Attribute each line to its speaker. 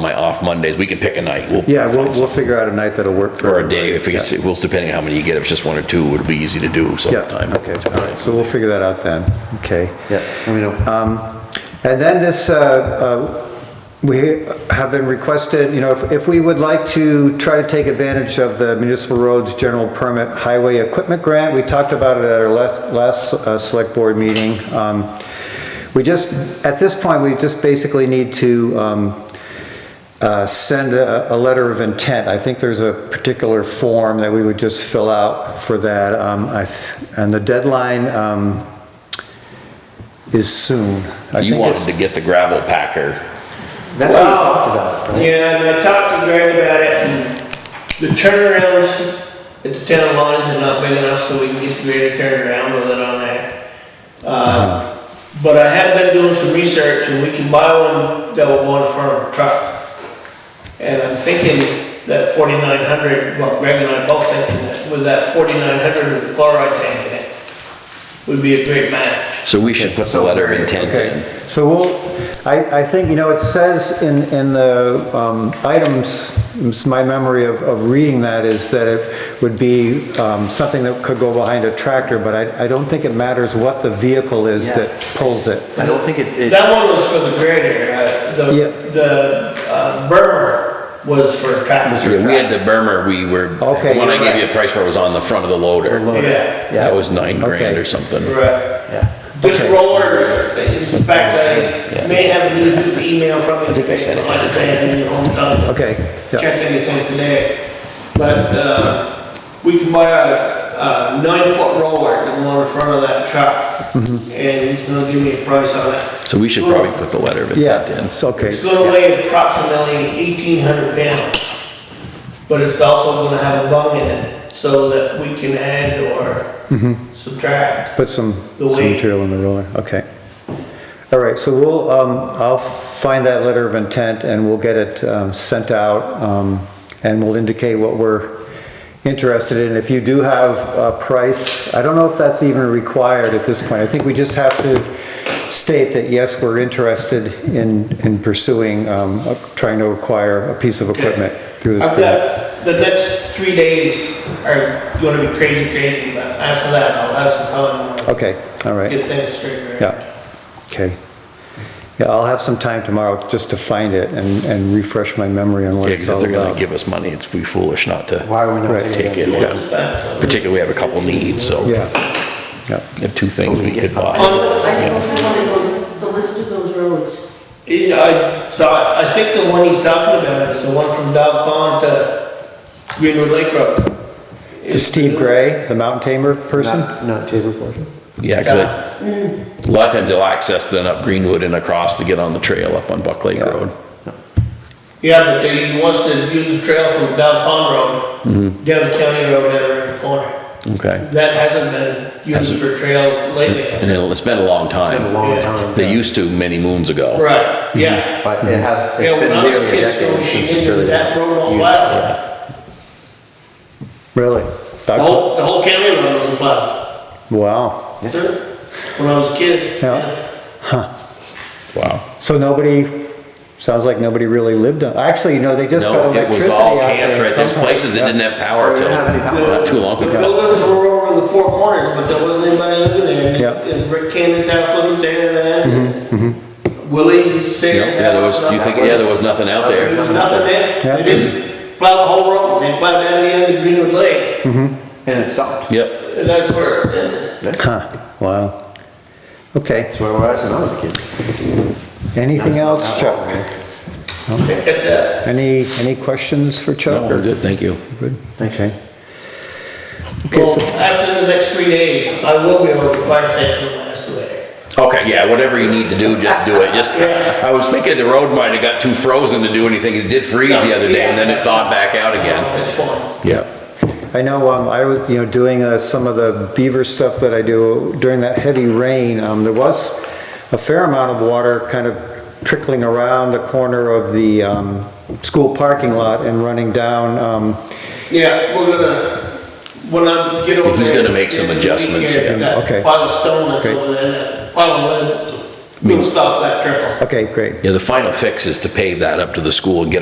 Speaker 1: my off Mondays, we can pick a night. We'll
Speaker 2: Yeah, we'll,
Speaker 1: find
Speaker 2: we'll
Speaker 1: something.
Speaker 2: figure out a night that'll work for.
Speaker 1: Or a day, if
Speaker 2: everybody.
Speaker 1: we, get- well, depending on how many you get, if it's just one or two, it'll be easy to do sometime.
Speaker 2: Yeah, okay, all right, so we'll figure that out then, okay.
Speaker 3: Yeah, let me know.
Speaker 2: Um, And then this, uh, uh, we have been requested, you know, if- if we would like to try to take advantage of the municipal roads general permit highway equipment grant, we talked about it at our last, last uh, select board meeting. Um, We just, at this point, we just basically need to um, uh, send a, a letter of intent. I think there's a particular form that we would just fill out for that. Um, I th- And the deadline um, is soon. I
Speaker 1: You
Speaker 2: think
Speaker 1: wanted
Speaker 2: it's-
Speaker 1: to get the gravel packer.
Speaker 3: That's what we talked about. right?
Speaker 4: Yeah, and I talked to Greg about it, and the turnarounds at the town lines are not big enough, so we can get the grader turned around with it on that.
Speaker 3: Uh-huh.
Speaker 4: Uh, But I have been doing some research, and we can buy one that will go in front of a truck. And I'm thinking that forty-nine hundred, well, Greg and I both thinking that with that forty-nine hundred with the chloride tank in it, would be a great match.
Speaker 1: So we should put the letter of intent in.
Speaker 2: Okay, so we'll, I, I think, you know, it says in, in the um, items, it's my memory of, of reading that is that it would be um, something that could go behind a tractor, but I, I don't think it matters what the vehicle is
Speaker 3: Yeah.
Speaker 2: that pulls it.
Speaker 3: I don't think it, it,
Speaker 4: That one was for the grader, uh,
Speaker 2: Yeah.
Speaker 4: the, the uh, burner was for tractors.
Speaker 1: Yeah, we had the Burmer, we were,
Speaker 2: Okay,
Speaker 1: the one I
Speaker 2: you're
Speaker 1: gave you a price for was on the front of the loader.
Speaker 4: Yeah,
Speaker 1: That was nine grand
Speaker 2: Okay.
Speaker 1: or something.
Speaker 4: right.
Speaker 3: yeah.
Speaker 4: This roller, in fact, I may have a new email from you. I
Speaker 1: think I said it.
Speaker 4: saying, you know, I'm done.
Speaker 2: Okay, yeah,
Speaker 4: Check anything today. But, uh, we can buy a, a nine-foot roller that will in front of that truck. And he's gonna give me a price on it.
Speaker 1: So we should probably put the letter of intent
Speaker 2: yeah,
Speaker 1: in.
Speaker 2: it's okay.
Speaker 4: It's gonna weigh approximately eighteen hundred pounds. But it's also gonna have a bung in it so that we can add
Speaker 2: Mm-hmm.
Speaker 4: or subtract.
Speaker 2: Put some,
Speaker 4: The
Speaker 2: some
Speaker 4: weight.
Speaker 2: material in the roller, okay. All right, so we'll, um, I'll find that letter of intent and we'll get it, um, sent out, um, and we'll indicate what we're interested in. If you do have a price, I don't know if that's even required at this point. I think we just have to state that, yes, we're interested in, in pursuing, um, uh, trying to acquire a piece of equipment through this
Speaker 4: I've
Speaker 2: grant.
Speaker 4: got, the next three days are gonna be crazy, crazy, but after that, I'll have some time
Speaker 2: Okay, all
Speaker 4: to
Speaker 2: right.
Speaker 4: get things straightened out.
Speaker 2: Yeah, okay. Yeah, I'll have some time tomorrow just to find it and, and refresh my memory on what
Speaker 1: Yeah,
Speaker 2: it's
Speaker 1: because if
Speaker 2: all
Speaker 1: they're gonna
Speaker 2: about.
Speaker 1: give us money, it's we foolish not to
Speaker 3: Why are we not
Speaker 2: Right.
Speaker 3: taking
Speaker 1: take
Speaker 3: it?
Speaker 1: it. yeah. Particularly, we have a couple needs, so we
Speaker 2: Yeah, yeah,
Speaker 1: have two things we could buy.
Speaker 5: I don't have one of those, the list of those roads.
Speaker 4: Yeah, I, so I, I think the one he's talking about is the one from Dog Pond to Greenwood Lake Road.
Speaker 2: to Steve Gray, the mountain tamer person?
Speaker 3: Not, not table portion?
Speaker 1: Yeah, 'cause I- a lot of times they'll mm. access then up Greenwood and across to get on the trail up on Buck Lake Road.
Speaker 4: Yeah, but he wants to use the trail from Dog Pond
Speaker 1: Mm-hmm.
Speaker 4: Road down to County Road down around the corner.
Speaker 1: Okay.
Speaker 4: That hasn't been used
Speaker 1: Hasn't-
Speaker 4: for trail
Speaker 1: And
Speaker 4: lately.
Speaker 1: it'll- it's been a long
Speaker 3: Been a
Speaker 1: time.
Speaker 3: long
Speaker 4: Yeah.
Speaker 3: time.
Speaker 1: They used to many moons ago.
Speaker 4: Right,
Speaker 1: Mm-hmm.
Speaker 4: yeah.
Speaker 3: But it has,
Speaker 4: Yeah,
Speaker 3: it's
Speaker 4: when
Speaker 3: been
Speaker 4: I was a
Speaker 3: nearly a
Speaker 4: kid, so
Speaker 3: decade
Speaker 4: she
Speaker 3: since it's
Speaker 4: did
Speaker 3: really
Speaker 4: that road all
Speaker 3: used.
Speaker 4: wild.
Speaker 2: Really?
Speaker 4: The
Speaker 2: Doc-
Speaker 4: whole, the whole county road was plowed.
Speaker 2: Wow.
Speaker 4: When I was a kid.
Speaker 2: Yeah.
Speaker 1: Wow.
Speaker 2: So nobody, sounds like nobody really lived on, actually, you know, they just got
Speaker 1: No, it was
Speaker 2: electricity
Speaker 1: all
Speaker 2: out
Speaker 1: camps,
Speaker 2: there.
Speaker 1: right?
Speaker 2: at
Speaker 1: There's
Speaker 2: some point.
Speaker 1: places that
Speaker 2: Yeah.
Speaker 1: didn't have power
Speaker 3: They
Speaker 1: till
Speaker 3: didn't have any power.
Speaker 1: not too long
Speaker 4: The
Speaker 1: ago.
Speaker 4: buildings were over the four corners, but there wasn't anybody living there.
Speaker 2: Yeah.
Speaker 4: And Rick Cannon's house was there then. Willie
Speaker 1: Mm-hmm. Yeah,
Speaker 4: Sayers'
Speaker 1: yeah, there was,
Speaker 4: house.
Speaker 1: you think, yeah, there was nothing out
Speaker 4: There
Speaker 1: there.
Speaker 4: was nothing there.
Speaker 2: Yeah.
Speaker 4: They just plowed the whole road, they plowed down the end of Greenwood Lake.
Speaker 2: Hmm.
Speaker 3: And it stopped.
Speaker 1: Yep.
Speaker 4: And that's where it ended.
Speaker 2: Huh, wow. Okay,
Speaker 3: That's where I was when I was a kid.
Speaker 2: anything else, Chuck?
Speaker 4: That's it.
Speaker 2: Any, any questions for Chuck?
Speaker 1: No, we're Oh, good, thank you.
Speaker 2: Good. Okay. Okay,
Speaker 4: Well,
Speaker 2: so-
Speaker 4: after the next three days, I will be over to the fire station with my excavator.
Speaker 1: Okay, yeah, whatever you need to do, just do it. Just, I was thinking the road might have got too frozen to do anything. It did freeze the other day and then it thawed back out again.
Speaker 4: It's fine.
Speaker 1: Yeah.
Speaker 2: I know, um, I was, you know, doing, uh, some of the beaver stuff that I do during that heavy rain, um, there was a fair amount of water kind of trickling around the corner of the, um, school parking lot and running down, um,
Speaker 4: Yeah, we're gonna, when I get over there.
Speaker 1: He's gonna make some adjustments,
Speaker 4: Yeah,
Speaker 1: yeah.
Speaker 4: that
Speaker 2: Okay.
Speaker 4: Pile of stone that's
Speaker 2: Great.
Speaker 4: over there, that pile of wood.
Speaker 1: mean-
Speaker 4: We'll stop that trickle.
Speaker 2: Okay, great.
Speaker 1: Yeah, the final fix is to pave that up to the school and get